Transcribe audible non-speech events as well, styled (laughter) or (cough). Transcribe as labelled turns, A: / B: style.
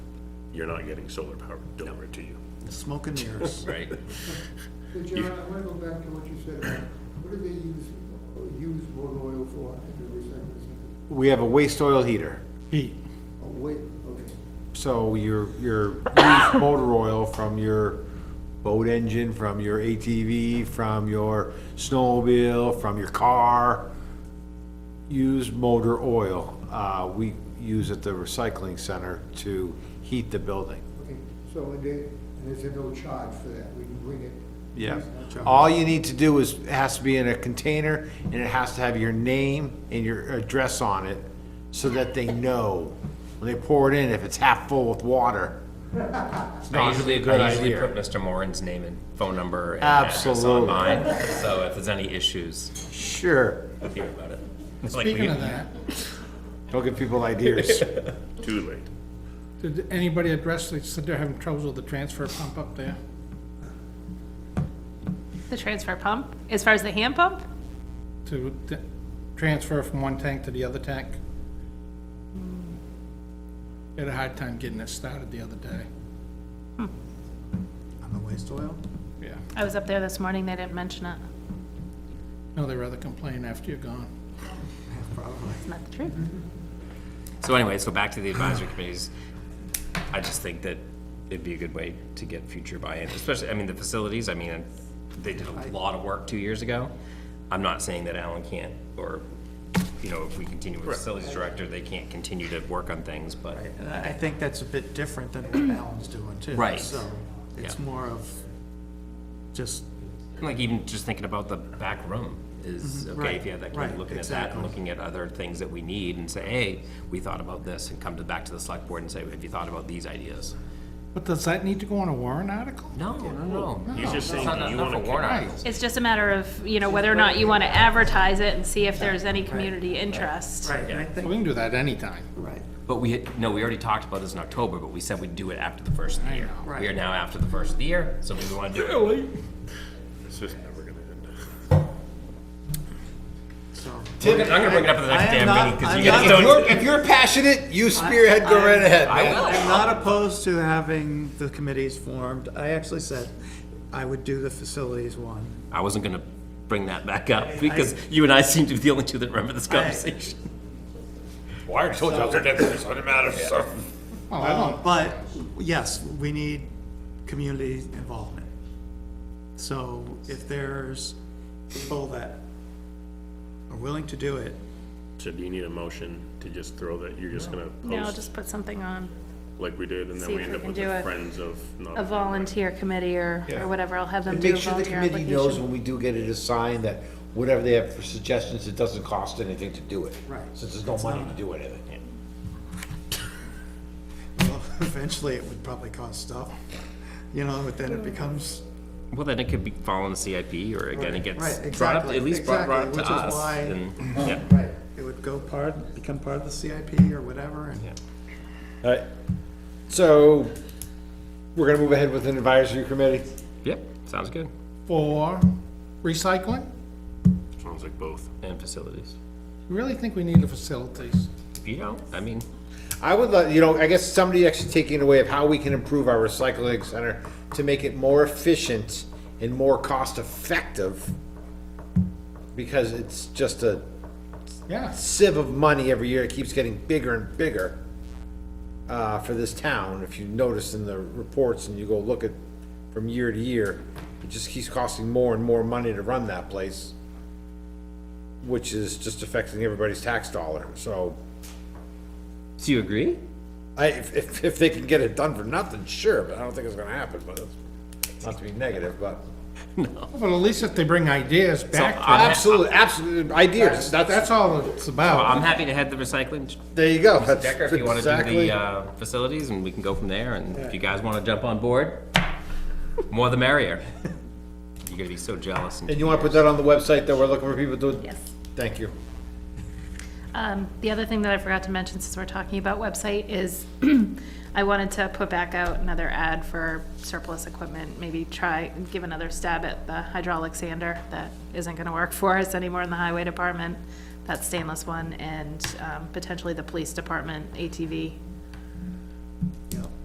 A: you're not getting solar power delivered to you.
B: Smoke and
C: (laughs)
B: mirrors.
C: Right.
D: So John, I want to go back to what you said about, what do they use, use wood oil for at the recycling center?
E: We have a waste oil heater.
B: Heat.
D: Oh, wait, okay.
E: So your, your used motor oil from your boat engine, from your ATV, from your snowmobile, from your car, use motor oil. Uh, we use at the recycling center to heat the building.
D: Okay, so and they, and there's a no charge for that, we can bring it.
E: Yeah. All you need to do is, it has to be in a container and it has to have your name and your address on it so that they know when they pour it in, if it's half full with water. It's
C: I
E: not
C: usually,
E: a
C: I
E: good
C: usually put
E: idea.
C: Mr. Moran's name and phone number and address on
E: Absolutely.
C: mine, so if there's any issues,
E: Sure.
C: I'll hear about it. It's like we
B: Speaking
C: get-
B: of that,
E: Don't give people (laughs) ideas.
A: (laughs) Too late.
B: did anybody address, they said they're having troubles with the transfer pump up there?
F: The transfer pump, as far as the hand pump?
B: To t- transfer from one tank to the other tank? Had a hard time getting it started the other day.
G: Hmm. On the waste oil?
B: Yeah.
F: I was up there this morning, they didn't mention it.
B: No, they rather complain after you're gone.
F: It's not the truth.
C: So anyway, so back to the advisory committees, I just think that it'd be a good way to get future buy-in, especially, I mean, the facilities, I mean, they did a lot of work two years ago. I'm not saying that Alan can't, or, you know, if we continue with facilities director, they can't continue to work on things, but,
G: And I I think that's a bit different than what Alan's doing too.
C: Right.
G: So it's
C: Yeah.
G: more of just,
C: like, even just thinking about the back room is, okay, if you have that,
G: Mm-hmm. Right, right,
C: looking at that and
G: exactly.
C: looking at other things that we need and say, hey, we thought about this, and come to, back to the select board and say, have you thought about these ideas?
B: But does that need to go on a warrant article?
C: No, no, no.
A: He's just
C: It's
A: saying,
C: not
A: do you
C: enough
A: wanna
C: of warrant
A: commit?
C: articles.
F: It's just a matter of, you know, whether or not you want to advertise it and see if there's any community interest.
G: right, and I
B: We
G: think,
B: can do that anytime.
G: right,
C: But we, had- no, we already talked about this in October, but we said we'd do it after the first of the year.
G: know.
C: We are now after the first of the year, so we want to do it.
B: Really?
A: It's just never gonna (laughs) end.
G: so.
C: I'm gonna bring it up at the
G: I am
C: next damn
G: not-
C: meeting, because
G: I'm
C: you guys
G: not-
E: If you're,
C: don't.
E: if you're passionate, you spearhead, go right ahead,
C: I
E: man.
C: will.
G: I'm not opposed to having the committees formed. I actually said I would do the facilities one.
C: I wasn't gonna bring that back up, because you and I seem to be the only two that remember this conversation.
A: Well, I already told you I was against this, doesn't matter, so.
B: Well, I don't,
G: But, yes, we need community involvement. So if there's people that are willing to do it,
A: So do you need a motion to just throw that, you're just gonna
F: No,
A: post
F: just put something on,
A: like we did, and then
F: see
A: we
F: if
A: end
F: we
A: up
F: can
A: with
F: do
A: the
F: it.
A: friends of. not-
F: a volunteer committee or, or whatever, I'll have them do
E: Make
F: a
E: sure the
F: volunteer
E: committee knows
F: application.
E: when we do get it assigned that whatever they have for suggestions, it doesn't cost anything to do it.
G: Right.
E: Since there's no money to do anything.
G: well, (laughs) eventually it would probably cost stuff. You know, but then it becomes,
C: Well, then it could be following the CIP, or again, it gets
G: Right,
C: brought up,
G: exactly,
C: at least brought brought up
G: exactly,
C: to
G: which is
C: us.
G: why- (clears throat)
C: and- yeah.
G: right, it would go part, become part of the CIP or whatever, and
E: Alright, so we're gonna move ahead with an advisory committee.
C: Yep, sounds good.
B: for recycling?
A: Sounds like both.
C: And facilities.
B: You Really think we need the facilities?
C: If you don't, I mean,
E: I would like, you know, I guess somebody actually taking away of how we can improve our recycling center to make it more efficient and more cost effective. Because it's just a
B: Yes.
E: sieve of money every year. It keeps getting bigger and bigger uh, for this town. If you notice in the reports and you go look at from year to year, it just keeps costing more and more money to run that place, which is just affecting everybody's tax dollar. So
C: do you agree?
E: I, if, if, if they can get it done for nothing, sure, but I don't think it's gonna happen, but it's not to be negative,
C: (laughs)
E: but.
B: Well, at least if they bring ideas back to
C: I'm-
B: us,
E: Absolutely, absolutely, ideas, that's,
B: that's all it's about.
C: I'm happy to head the recycling
E: there you go. That's
C: Decker, if you want to do
E: exactly-
C: the uh, facilities, and we can go from there, and if you guys want to jump on board, more the merrier. You're gonna be so jealous.
E: And
C: and-
E: you wanna put that on the website that we're looking for people to?
F: Yes.
E: Thank you.
F: Um, the other thing that I forgot to mention since we're talking about website is (clears throat) I wanted to put back out another ad for surplus equipment, maybe try, give another stab at the hydraulic sander that isn't gonna work for us anymore in the highway department, that stainless one, and, um, potentially the police department ATV